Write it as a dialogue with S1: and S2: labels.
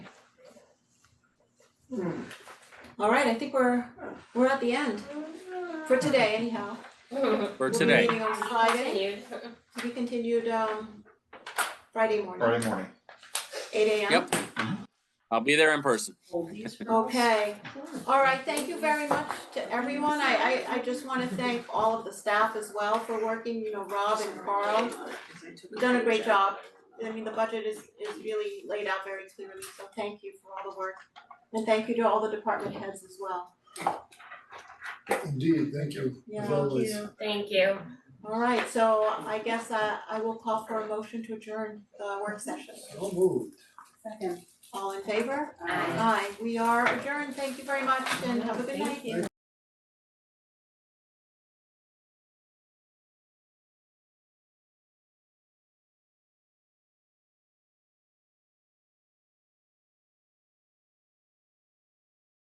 S1: All right, I think we're, we're at the end for today anyhow.
S2: for
S1: We'll be
S2: today.
S1: meeting on Friday, we continued um Friday morning,
S3: Friday morning.
S1: eight AM.
S2: Yep. I'll be there in person.
S1: Okay, all right, thank you very much to everyone. I I I just wanna thank all of the staff as well for working, you know, Rob and Carl. You've done a great job. I mean, the budget is is really laid out very clearly, so thank you for all the work. And thank you to all the department heads as well.
S4: Indeed, thank you,
S1: Yeah.
S4: as
S1: Thank
S4: always.
S5: Thank you.
S1: All right, so I guess I I will call for a motion to adjourn the work session.
S4: Well moved.
S1: All in favor? Aye, we are adjourned. Thank you very much and have a good night.
S4: Thank you.